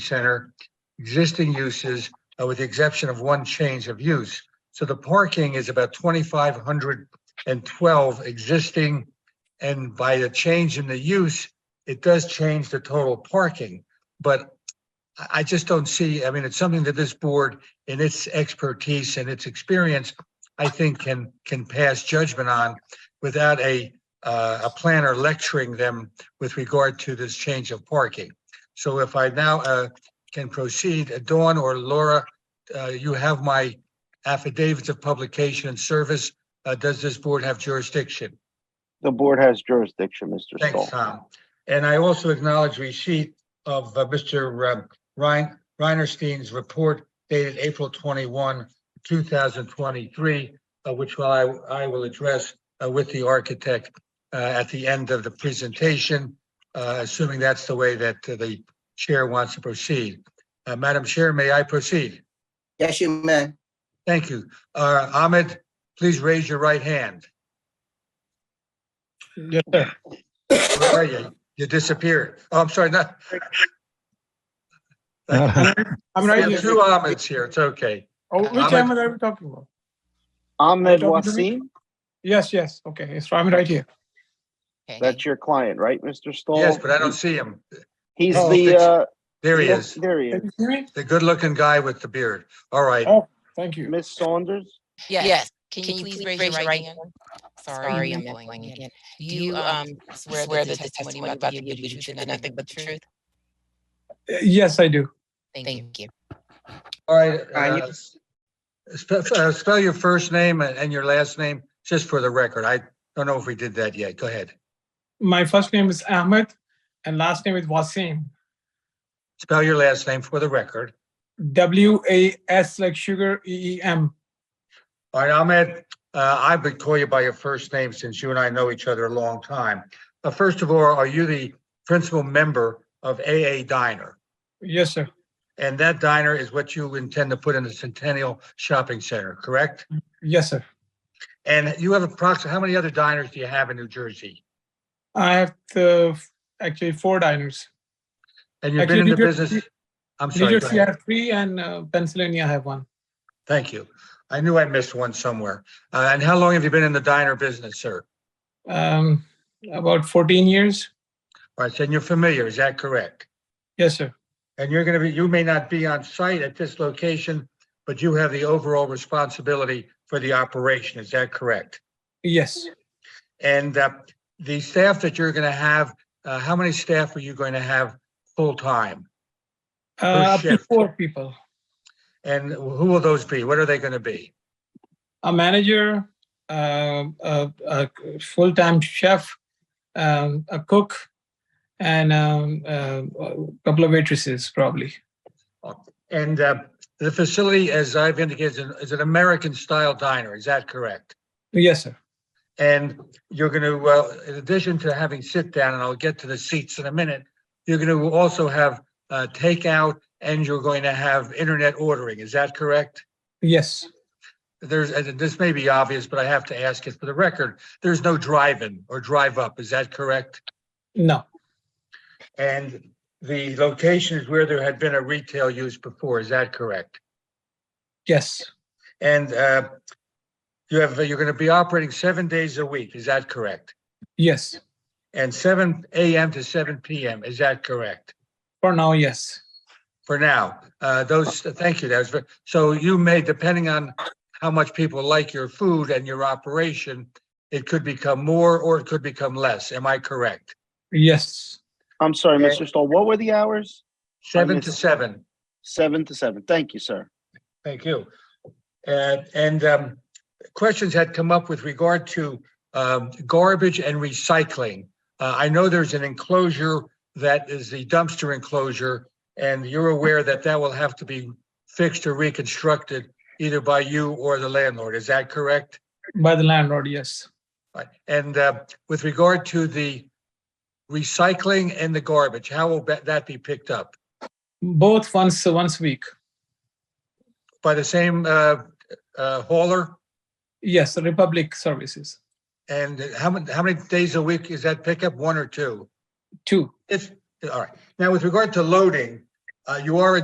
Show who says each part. Speaker 1: center, existing uses, uh, with the exception of one change of use. So the parking is about twenty-five hundred and twelve existing. And by the change in the use, it does change the total parking. But I, I just don't see, I mean, it's something that this board in its expertise and its experience, I think can, can pass judgment on without a, uh, a planner lecturing them with regard to this change of parking. So if I now uh, can proceed, uh, Dawn or Laura, uh, you have my affidavits of publication and service. Uh, Does this board have jurisdiction?
Speaker 2: The board has jurisdiction, Mr.
Speaker 1: Thanks,
Speaker 2: Stoll.
Speaker 1: Tom. And I also acknowledge receipt of uh, Mr. Rein Reinerstein's report dated April 21, 2023, uh, which will- I I will address uh, with the architect uh, at the end of the presentation, uh, assuming that's the way that uh, the chair wants to proceed. Uh, Madam Chair, may I proceed?
Speaker 3: Yes, you may.
Speaker 1: Thank you. Uh, Ahmed, please raise your right hand.
Speaker 4: Yes, sir.
Speaker 1: Where are you? You disappeared. Oh, I'm sorry, not,
Speaker 4: I'm
Speaker 1: we
Speaker 4: right
Speaker 1: have two
Speaker 4: here.
Speaker 1: Ahmeds here. It's okay.
Speaker 4: Oh, which
Speaker 1: Ahmed.
Speaker 4: Ahmed are we talking about?
Speaker 2: Ahmed
Speaker 4: Talking to
Speaker 2: Wasim,
Speaker 4: me? Yes, yes, okay, it's, I'm right here.
Speaker 2: that's your client, right, Mr. Stoll?
Speaker 1: Yes, but I don't see him.
Speaker 2: He's
Speaker 4: Oh,
Speaker 2: the,
Speaker 1: it's-
Speaker 2: uh.
Speaker 1: There he
Speaker 2: yeah,
Speaker 1: is,
Speaker 2: There he
Speaker 4: Can
Speaker 2: is.
Speaker 4: you hear me?
Speaker 1: the good-looking guy with the beard. All right.
Speaker 4: Oh. Thank you.
Speaker 2: Ms. Saunders,
Speaker 5: Yes, can you please raise your right hand? Sorry, I'm blanking again. Do you um swear that the testimony I'm about to give you the truth and nothing but the truth?
Speaker 4: Uh, Yes, I do.
Speaker 5: Thank you.
Speaker 1: All right.
Speaker 3: All right,
Speaker 1: uh, spe- uh, Spell your first name and and your last name, just for the record. I don't know if we did that yet. Go ahead.
Speaker 4: My first name is Ahmed and last name is Wasim.
Speaker 1: Spell your last name for the record.
Speaker 4: W A S like sugar, E E M.
Speaker 1: All right, Ahmed, uh, I've been calling you by your first name since you and I know each other a long time. Uh, First of all, are you the principal member of AA Diner?
Speaker 4: Yes, sir.
Speaker 1: And that diner is what you intend to put in the Centennial Shopping Center, correct?
Speaker 4: Yes, sir.
Speaker 1: And you have approximately, how many other diners do you have in New Jersey?
Speaker 4: I have the, actually four diners.
Speaker 1: And you've been
Speaker 4: Actually,
Speaker 1: in the
Speaker 4: New Jersey-
Speaker 1: business? I'm
Speaker 4: New
Speaker 1: sorry. go
Speaker 4: Jersey, I
Speaker 1: ahead.
Speaker 4: have three and uh, Pennsylvania, I have one.
Speaker 1: Thank you. I knew I missed one somewhere. Uh, And how long have you been in the diner business, sir?
Speaker 4: Um, about fourteen years.
Speaker 1: All right, so you're familiar, is that correct?
Speaker 4: Yes, sir.
Speaker 1: And you're going to be, you may not be on site at this location, but you have the overall responsibility for the operation, is that correct?
Speaker 4: Yes.
Speaker 1: And uh, the staff that you're going to have, uh, how many staff are you going to have full-time? Oh,
Speaker 4: Uh, up to
Speaker 1: shift.
Speaker 4: four people.
Speaker 1: And who will those be? What are they going to be?
Speaker 4: a manager, uh, a, a full-time chef, um, a cook, and um, uh, a couple of waitresses, probably.
Speaker 1: And uh, the facility, as I've indicated, is an- is an American-style diner, is that correct?
Speaker 4: Yes, sir.
Speaker 1: And you're going to, well, in addition to having sit down, and I'll get to the seats in a minute, you're going to also have uh, takeout and you're going to have internet ordering. Is that correct?
Speaker 4: Yes.
Speaker 1: There's, and this may be obvious, but I have to ask it for the record. There's no drive-in or drive-up. Is that correct?
Speaker 4: No.
Speaker 1: And the location is where there had been a retail use before. Is that correct?
Speaker 4: Yes.
Speaker 1: And uh, you have, you're going to be operating seven days a week. Is that correct?
Speaker 4: Yes.
Speaker 1: And seven AM to seven PM. Is that correct?
Speaker 4: For now, yes.
Speaker 1: for now. Uh, those, thank you. That was, ve- so you may, depending on how much people like your food and your operation, it could become more or it could become less. Am I correct?
Speaker 4: Yes.
Speaker 2: I'm sorry,
Speaker 1: Yeah.
Speaker 2: Mr. Stoll, what were the hours?
Speaker 1: Seven to
Speaker 2: missed-
Speaker 1: seven.
Speaker 2: Seven to seven. Thank you, sir.
Speaker 1: Thank you. Uh, and, um, questions had come up with regard to, um, garbage and recycling. Uh, I know there's an enclosure that is the dumpster enclosure, and you're aware that that will have to be fixed or reconstructed either by you or the landlord. Is that correct?
Speaker 4: By the landlord, yes.
Speaker 1: Right. And, uh, with regard to the recycling and the garbage, how will that- that be picked up?
Speaker 4: Both once once a week.
Speaker 1: By the same, uh, uh, hauler?
Speaker 4: Yes. Republic services.
Speaker 1: And how many, how many days a week is that pickup? One or two?
Speaker 4: Two.
Speaker 1: It's, all right. Now with regard to loading, Uh, you are a